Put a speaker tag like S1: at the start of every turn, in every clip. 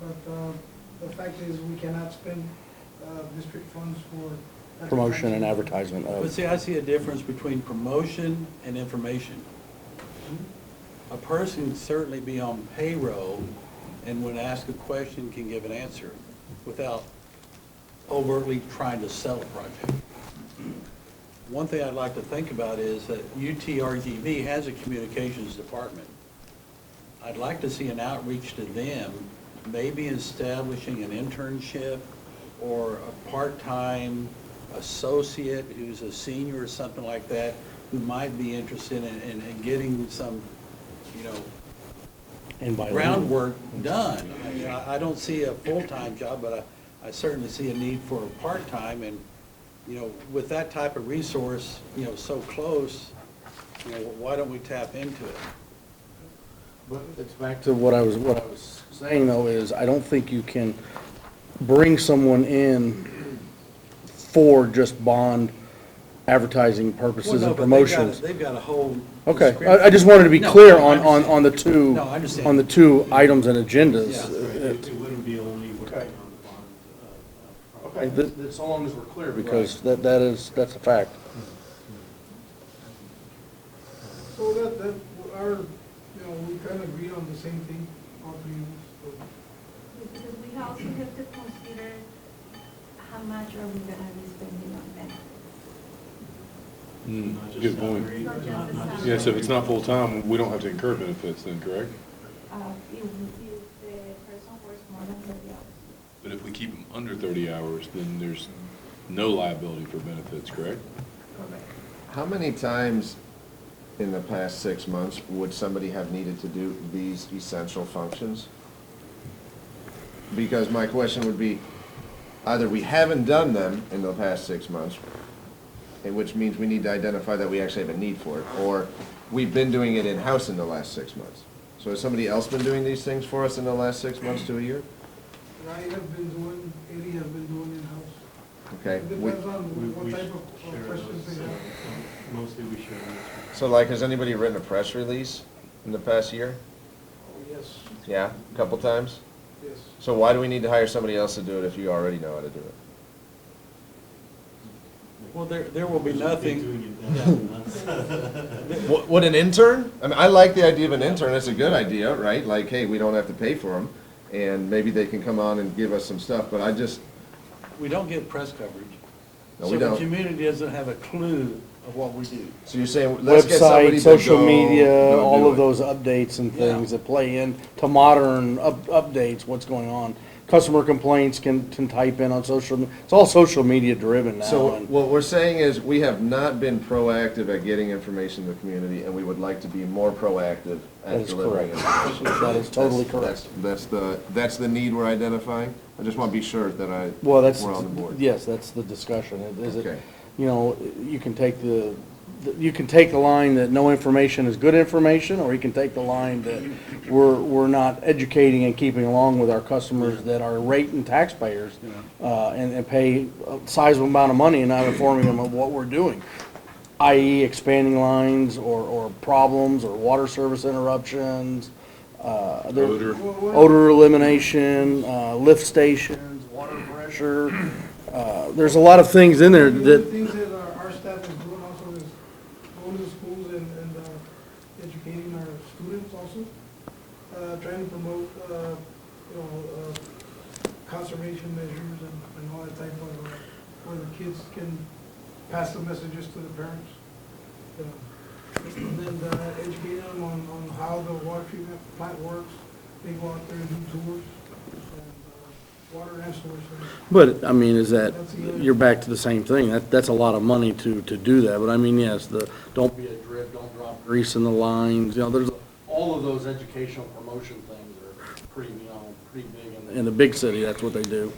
S1: But uh, the fact is, we cannot spend uh, district funds for.
S2: Promotion and advertisement
S3: But
S2: of,
S3: see, I see a difference between promotion and information. A person can certainly be on payroll and when asked a question can give an answer without overtly trying to sell a project. One thing I'd like to think about is that UTRGV has a communications department. I'd like to see an outreach to them, maybe establishing an internship or a part-time associate who's a senior or something like that, who might be interested in, in in getting some, you know,
S2: and by.
S3: groundwork done. I mean, I, I don't see a full-time job, but I, I certainly see a need for a part-time and, you know, with that type of resource, you know, so close, you know, why don't we tap into it?
S2: But it's back to what I was, what I was saying though, is I don't think you can bring someone in for just bond advertising
S3: Well,
S2: purposes
S3: no,
S2: and
S3: but they've got a-
S2: promotions.
S3: They've got a whole.
S2: Okay,
S3: description.
S2: I, I just wanted to be
S3: No,
S2: clear
S3: no, I
S2: on, on,
S3: understand.
S2: on the two.
S3: No, I understand.
S2: On the two items and
S3: Yeah.
S2: agendas.
S4: Right, It it wouldn't be only working
S2: Okay.
S4: on the bond. uh, uh,
S2: Okay,
S4: project.
S2: that, that's so long as we're clear, because that, that is, that's a fact.
S1: So that, that, our, you know, we kind of agree on the same thing, all three of us. so.
S5: Because we also have to consider how much are we gonna be spending on benefits.
S6: Mm,
S4: Not just
S6: Good point.
S4: salary,
S5: Not just
S4: not- not just
S5: salary.
S6: Yeah, so if it's not
S4: salary.
S6: full-time, we don't have to incur benefits then, correct?
S5: Uh, if, if the person works more than thirty hours.
S6: But if we keep them under 30 hours, then there's no liability for benefits, correct?
S5: Correct.
S7: How many times in the past six months would somebody have needed to do these essential functions? Because my question would be, either we haven't done them in the past six months, and which means we need to identify that we actually have a need for it, or we've been doing it in-house in the last six months. So has somebody else been doing these things for us in the last six months to a year?
S1: And I have been doing, Eddie has been doing in-house.
S7: Okay.
S1: It
S7: we-
S1: depends
S4: We-
S1: on
S4: we
S1: what type of
S4: share
S1: of questions
S4: those,
S1: they
S4: uh,
S1: have.
S4: Mostly we share those.
S7: So like, has anybody written a press release in the past year?
S1: Oh, yes,
S7: Yeah, a couple times?
S1: yes.
S7: So why do we need to hire somebody else to do it if you already know how to do it?
S3: Well, there, there will be
S4: We've been doing
S3: nothing,
S4: it now.
S7: What, what, an intern? I mean, I like the idea of an intern, that's a good idea, right? Like, hey, we don't have to pay for them, and maybe they can come on and give us some stuff, but I just,
S3: we don't get press coverage.
S7: No, we
S3: So the
S7: don't.
S3: community doesn't have a clue of what we do.
S7: so you're saying, let's get somebody
S2: Website,
S7: to
S2: social
S7: go-
S2: media,
S7: go do
S2: all of
S7: it.
S2: those updates and
S3: Yeah.
S2: things that play in to modern up, updates, what's going on. Customer complaints can, can type in on social, me- it's all social media driven now.
S7: So
S2: and-
S7: what we're saying is, we have not been proactive at getting information to the community, and we would like to be more proactive
S2: That
S7: at
S2: is
S7: delivering
S2: correct.
S7: information.
S2: That is totally
S7: That's-
S2: correct.
S7: That's that's the, that's the need we're identifying? I just want to be sure that I,
S2: Well, that's,
S7: we're on the board.
S2: yes, that's the discussion. It- Is it,
S7: Okay.
S2: you know, you can take the, you can take the line that no information is good information, or you can take the line that we're, we're not educating and keeping along with our customers that are rating taxpayers, uh, and, and pay a sizable amount of money and not informing them of what we're doing, i.e. expanding lines or, or problems or water service interruptions, uh, there-
S6: Odor.
S1: Well, what-
S2: odor elimination, uh, lift stations, water pressure. uh, There's a lot of things in there
S1: The other
S2: that,
S1: things that our, our staff is doing also is going to schools and, and uh, educating our students also, uh, trying to promote, uh, you know, uh, conservation measures and, and all that type of, uh, where the kids can pass the messages to the parents. you know. And then uh, educating them on, on how the water treatment plant works, they go out there and do tours, and uh, water and source.
S2: but, I mean, is that,
S1: That's the other-
S2: you're back to the same thing. That, that's a lot of money to, to do that, but I mean, yes, the, don't be a drip, don't drop grease in the lines, you know, there's, all of those educational promotion things are pretty, you know, pretty big. in the- In the big city, that's what they do.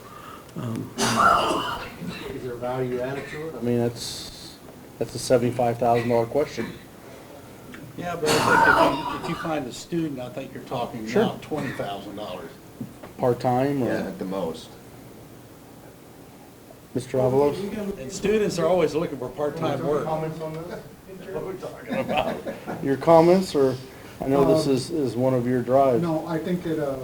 S8: Is there value added to it?
S2: I mean, that's, that's a seventy-five thousand dollar question.
S3: Yeah, but I think if you, if you find a student, I think you're talking
S2: Sure.
S3: now twenty thousand dollars.
S2: Part-time
S7: Yeah,
S2: or,
S7: at the most.
S2: Mr. Avalos?
S1: We can look
S3: And students are always looking for part-time work.
S1: into it.
S2: Your comments, or, I know this is, is one of your
S1: um,
S2: drives.
S9: No, I think that, uh,